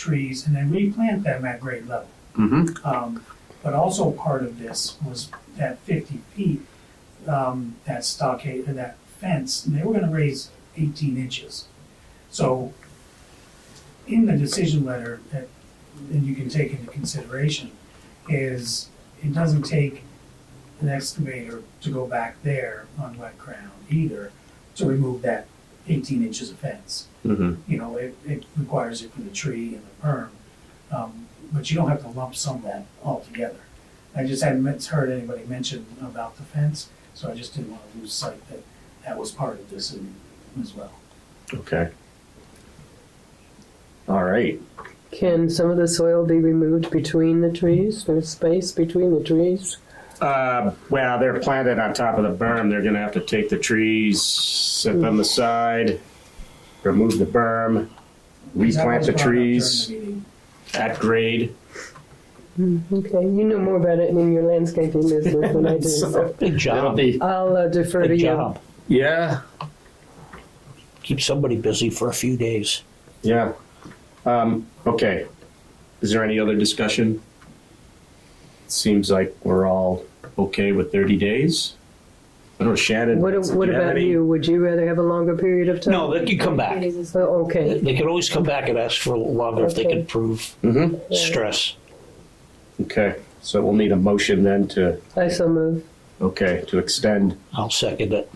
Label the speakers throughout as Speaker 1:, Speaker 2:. Speaker 1: trees and then replant them at grade level.
Speaker 2: Mm-hmm.
Speaker 1: Um, but also part of this was that fifty feet, um, that stockade, or that fence, and they were gonna raise eighteen inches. So in the decision letter that, that you can take into consideration is, it doesn't take an excavator to go back there on wet ground either to remove that eighteen inches of fence
Speaker 2: Mm-hmm.
Speaker 1: you know, it, it requires it for the tree and the perm. Um, but you don't have to lump sum that altogether. I just hadn't met- heard anybody mention about the fence, so I just didn't wanna lose sight that that was part of this and- as well.
Speaker 2: Okay. All right.
Speaker 3: Can some of the soil be removed between the trees? There's space between the trees?
Speaker 2: Uh, well, they're planted on top of the berm. They're gonna have to take the trees, set them aside, remove the berm,
Speaker 1: That
Speaker 2: replant
Speaker 1: was
Speaker 2: the
Speaker 1: brought up during
Speaker 2: trees
Speaker 1: the meeting.
Speaker 2: at grade.
Speaker 3: Okay, you know more about it in your landscaping business than I do. so
Speaker 4: Big
Speaker 2: It'll
Speaker 4: job.
Speaker 2: be,
Speaker 3: I'll uh, defer to
Speaker 4: Big
Speaker 3: you.
Speaker 4: job.
Speaker 2: yeah,
Speaker 4: Keep somebody busy for a few days.
Speaker 2: yeah. Um, okay. Is there any other discussion? Seems like we're all okay with thirty days. I don't know, Shannon.
Speaker 3: What,
Speaker 2: do
Speaker 3: what
Speaker 2: you have
Speaker 3: about
Speaker 2: any-
Speaker 3: you? Would you rather have a longer period of time?
Speaker 4: No, they can come back.
Speaker 3: Oh, okay.
Speaker 4: They could always come back and ask for longer if they
Speaker 3: Okay.
Speaker 4: could prove
Speaker 2: Mhm.
Speaker 4: stress.
Speaker 2: Okay, so we'll need a motion then to,
Speaker 3: I so move.
Speaker 2: okay, to extend,
Speaker 4: I'll second it.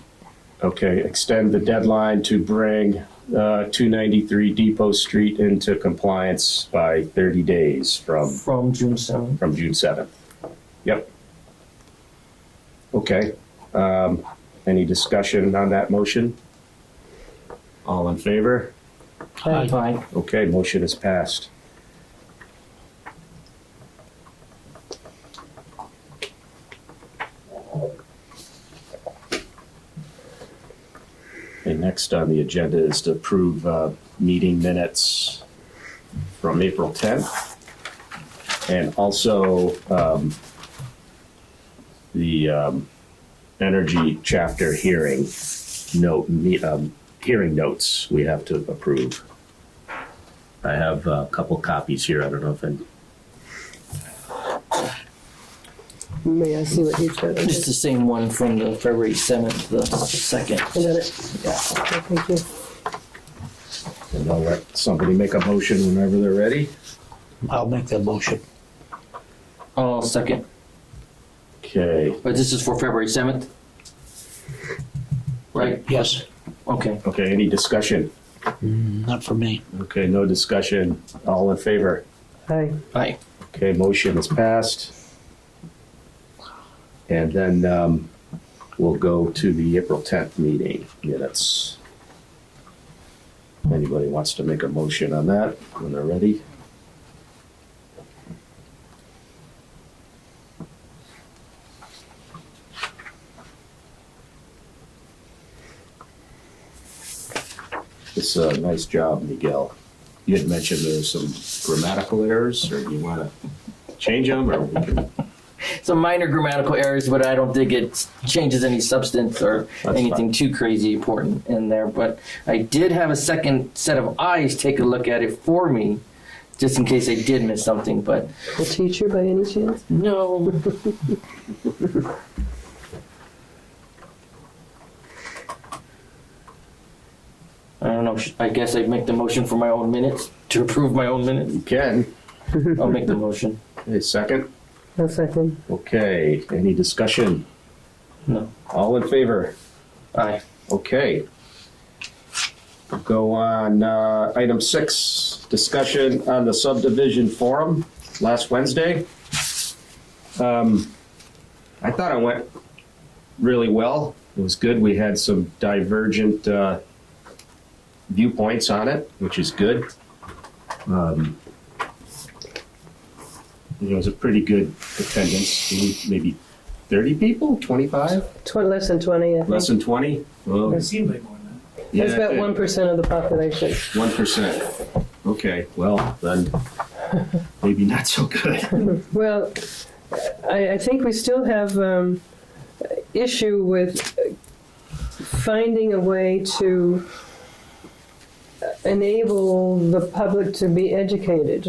Speaker 2: okay, extend the deadline to bring uh, 293 Depot Street into compliance by 30 days from,
Speaker 5: From June seventh.
Speaker 2: from June 7th. Yep. Okay, um, any discussion on that motion? All in favor?
Speaker 4: Aye.
Speaker 5: Aye.
Speaker 2: Okay, motion is passed. And next on the agenda is to approve uh, meeting minutes from April 10th. And also um, the um, energy chapter hearing note, me- um, hearing notes we have to approve. I have a couple copies here. I don't know if I.
Speaker 3: May I see what you've got? Okay.
Speaker 5: It's the same one from the February seventh, the second.
Speaker 3: I got it.
Speaker 5: Yeah.
Speaker 3: Okay, Thank you.
Speaker 2: And I'll let somebody make a motion whenever they're ready.
Speaker 4: I'll make that motion.
Speaker 5: Oh, second,
Speaker 2: Okay.
Speaker 5: but this is for February seventh? Right,
Speaker 4: Yes,
Speaker 5: okay.
Speaker 2: Okay. Any discussion?
Speaker 4: not for me.
Speaker 2: Okay. No discussion. All in favor?
Speaker 3: Hi.
Speaker 5: Aye.
Speaker 2: Okay. Motion is passed. And then um, we'll go to the April 10th meeting minutes. Anybody wants to make a motion on that when they're ready? It's a nice job, Miguel. You had mentioned there's some grammatical errors, or do you want to change them, or we can-
Speaker 5: Some minor grammatical errors, but I don't think it changes any substance or
Speaker 2: That's
Speaker 5: anything too crazy important in there. But I did have a second set of eyes take a look at it for me, just in case I did miss something, but
Speaker 3: A teacher by any chance?
Speaker 5: no. I don't know. I guess I'd make the motion for my own minutes, to approve my own minutes.
Speaker 2: you can?
Speaker 5: I'll make the motion.
Speaker 2: A second?
Speaker 3: A second.
Speaker 2: Okay, any discussion?
Speaker 5: No.
Speaker 2: All in favor?
Speaker 5: Aye.
Speaker 2: Okay. Go on, uh, item six, discussion on the subdivision forum last Wednesday. Um, I thought it went really well. It was good. We had some divergent, uh, viewpoints on it, which is good. Um, It was a pretty good attendance, maybe thirty people, twenty-five,
Speaker 3: Tw- less than 20, I think.
Speaker 2: less than twenty? Well,
Speaker 1: It seemed like more than
Speaker 3: That's about 1% of the population.
Speaker 2: One percent. Okay, well, then, maybe not so good.
Speaker 3: Well, I, I think we still have um, issue with finding a way to enable the public to be educated.